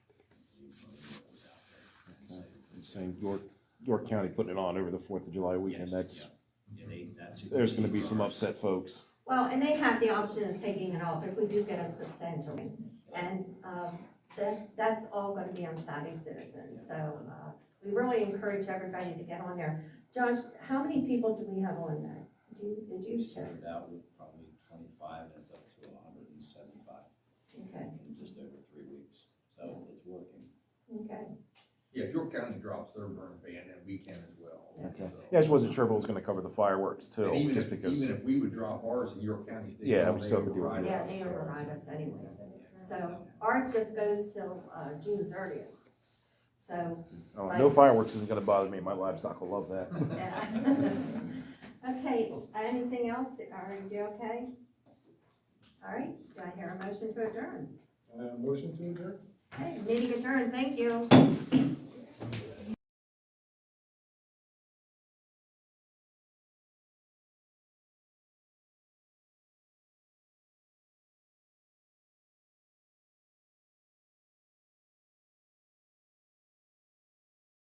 voted what was out there. And so, Uh, And Saying York, York County putting it on over the Fourth of July weekend, yes, that's, yeah. Yeah, they, that's. there's gonna be some upset folks. Well, and they have the option of taking it off if we do get a substantial one. And um, that, that's all going to be on savvy citizens. So uh, we really encourage everybody to get on there. Josh, how many people do we have on that? Do you- Did you We share? started out with probably twenty-five, that's up to hundred and seventy-five Okay, in just over three weeks, so it's working. okay. Yeah, York County drops their burn ban and we can as well. Okay. so. Yeah, I just wasn't sure if it was gonna cover the fireworks And too, even just if, because, even if we would drop ours and York County stays Yeah, on, we they still have to do it. override Yeah, us. they override us anyways. So ours just goes till uh, June thirtieth. So, oh, no fireworks isn't gonna bother me, my livestock will love that. yeah. Okay, anything else? Are you okay? All right, do I hear a motion to adjourn? Uh, motion to adjourn? Hey, meeting adjourned, thank you.